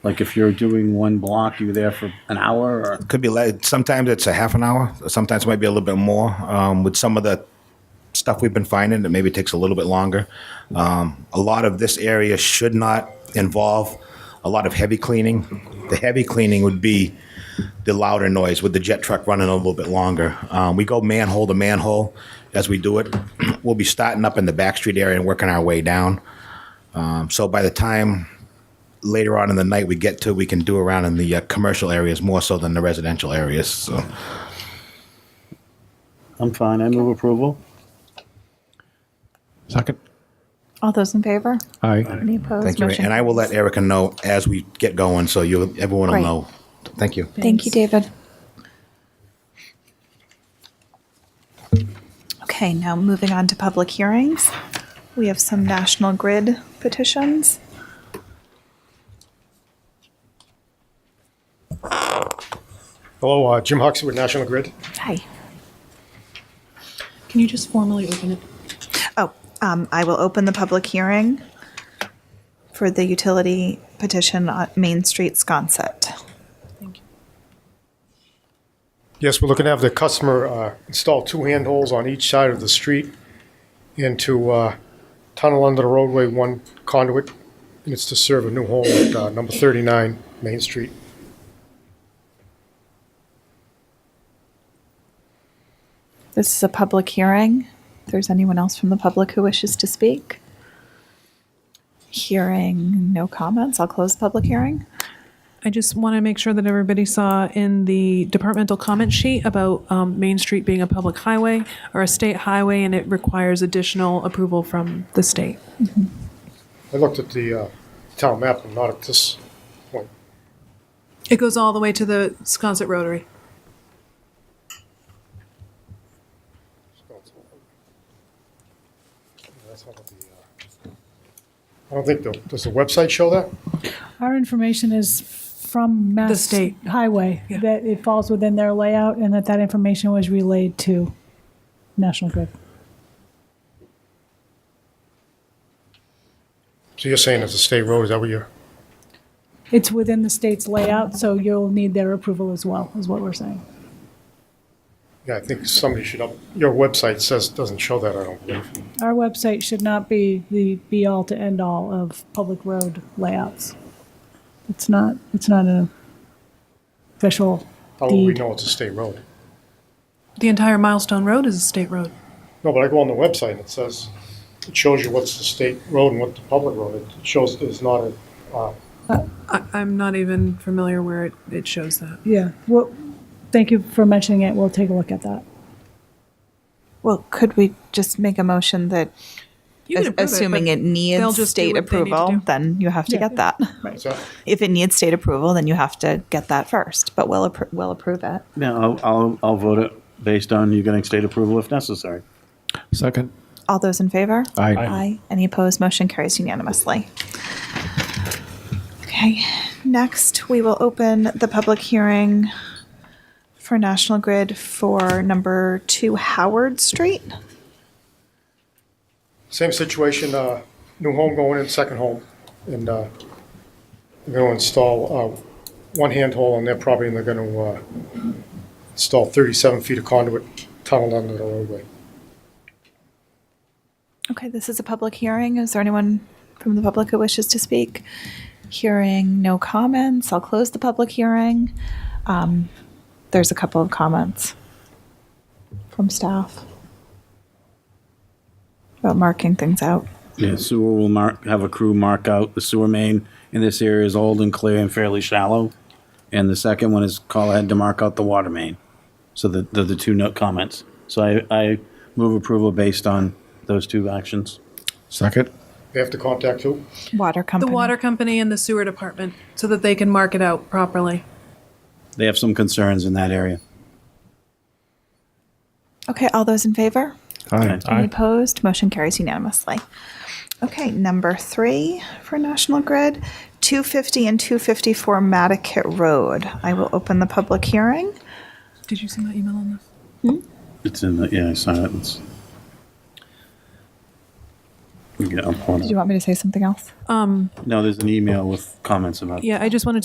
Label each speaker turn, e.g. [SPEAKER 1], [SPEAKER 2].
[SPEAKER 1] Like if you're doing one block, you're there for an hour or?
[SPEAKER 2] Could be like, sometimes it's a half an hour, sometimes it might be a little bit more. Um, with some of the stuff we've been finding, it maybe takes a little bit longer. Um, a lot of this area should not involve a lot of heavy cleaning. The heavy cleaning would be the louder noise with the jet truck running a little bit longer. Um, we go manhole to manhole as we do it. we'll be starting up in the back street area and working our way down. Um, so by the time later on in the night we get to, we can do around in the uh, commercial areas more so than the residential areas. So.
[SPEAKER 1] I'm fine. I move approval.
[SPEAKER 3] Second.
[SPEAKER 4] All those in favor?
[SPEAKER 3] Aye.
[SPEAKER 4] Any opposed?
[SPEAKER 2] Thank you,
[SPEAKER 4] Motion
[SPEAKER 2] and I will let
[SPEAKER 4] carries.
[SPEAKER 2] Erica know as we get going, so you, everyone will
[SPEAKER 4] Great.
[SPEAKER 2] know. Thank you.
[SPEAKER 4] Thank you, David. Okay, now moving on to public hearings. We have some National Grid petitions.
[SPEAKER 5] Hello, uh, Jim Huxley with National Grid.
[SPEAKER 4] Hi.
[SPEAKER 6] Can you just formally open it?
[SPEAKER 4] Oh, um, I will open the public hearing for the utility petition on Main Street Sconset.
[SPEAKER 5] Yes, we're looking to have the customer uh, install two handholds on each side of the street and to uh, tunnel under the roadway one conduit, and it's to serve a new home at uh, number 39 Main Street.
[SPEAKER 4] This is a public hearing. If there's anyone else from the public who wishes to speak? Hearing no comments, I'll close the public hearing.
[SPEAKER 6] I just want to make sure that everybody saw in the departmental comment sheet about um, Main Street being a public highway or a state highway, and it requires additional approval from the state.
[SPEAKER 5] I looked at the uh, town map, and not at this point.
[SPEAKER 6] It goes all the way to the Sconset Rotary.
[SPEAKER 5] That's not the, uh, I don't think, the- does the website show that?
[SPEAKER 7] Our information is from Mass
[SPEAKER 6] state.
[SPEAKER 7] Highway,
[SPEAKER 6] Yeah.
[SPEAKER 7] that it falls within their layout and that that information was relayed to National Grid.
[SPEAKER 5] So you're saying it's a state road, is that what you're,
[SPEAKER 7] It's within the state's layout, so you'll need their approval as well, is what we're saying.
[SPEAKER 5] yeah, I think somebody should, up. your website says, doesn't show that, I don't believe.
[SPEAKER 7] Our website should not be the be-all to end-all of public road layouts. It's not, it's not an official
[SPEAKER 5] How will we
[SPEAKER 7] deed.
[SPEAKER 5] know it's a state road?
[SPEAKER 6] The entire Milestone Road is a state road.
[SPEAKER 5] No, but I go on the website and it says, it shows you what's the state road and what the public road. It shows it's not a, uh,
[SPEAKER 6] I, I'm not even familiar where it, it shows that.
[SPEAKER 7] Yeah, well, thank you for mentioning it, we'll take a look at that.
[SPEAKER 4] Well, could we just make a motion that,
[SPEAKER 6] You
[SPEAKER 4] as-
[SPEAKER 6] can approve
[SPEAKER 4] assuming
[SPEAKER 6] but
[SPEAKER 4] it
[SPEAKER 6] they'll
[SPEAKER 4] needs
[SPEAKER 6] just do
[SPEAKER 4] state
[SPEAKER 6] what they need to
[SPEAKER 4] approval,
[SPEAKER 6] do.
[SPEAKER 4] then you have to
[SPEAKER 7] Yeah.
[SPEAKER 4] get that.
[SPEAKER 5] is that,
[SPEAKER 4] If it needs state approval, then you have to get that first, but we'll, appro- we'll approve it.
[SPEAKER 1] Yeah, I'll, I'll, I'll vote it based on you getting state approval if necessary.
[SPEAKER 3] Second.
[SPEAKER 4] All those in favor?
[SPEAKER 3] Aye. Aye.
[SPEAKER 4] Aye. Any opposed? Motion carries unanimously. Okay, next, we will open the public hearing for National Grid for number two Howard Street.
[SPEAKER 5] same situation, uh, new home going in, second home. And, uh, they're gonna install, uh, one handhole on their property and they're gonna, uh, install thirty-seven feet of conduit tunneled under the roadway.
[SPEAKER 4] Okay, this is a public hearing. Is there anyone from the public who wishes to speak? Hearing no comments, I'll close the public hearing. Um, There's a couple of comments from staff about marking things out.
[SPEAKER 1] Yeah, sewer will mark, have a crew mark out the sewer main in this area is old and clear and fairly shallow. And the second one is call ahead to mark out the water main. So the, the, the two note comments. So I, I move approval based on those two actions.
[SPEAKER 3] Second.
[SPEAKER 5] They have to contact who?
[SPEAKER 4] Water
[SPEAKER 6] The
[SPEAKER 4] company.
[SPEAKER 6] water company and the sewer department so that they can mark it out properly.
[SPEAKER 1] They have some concerns in that area.
[SPEAKER 4] Okay, all those in favor?
[SPEAKER 3] Aye.
[SPEAKER 4] Any opposed? Motion carries unanimously. Okay, number three for National Grid, 250 and 254 Matticat Road. I will open the public hearing.
[SPEAKER 6] Did you see my email on this?
[SPEAKER 1] It's in the, yeah, I saw it. It's- Yeah, I'm pulling
[SPEAKER 4] Did
[SPEAKER 1] it.
[SPEAKER 4] you want me to say something else?
[SPEAKER 1] No, there's an email with comments about.
[SPEAKER 6] Um, Yeah, I just wanted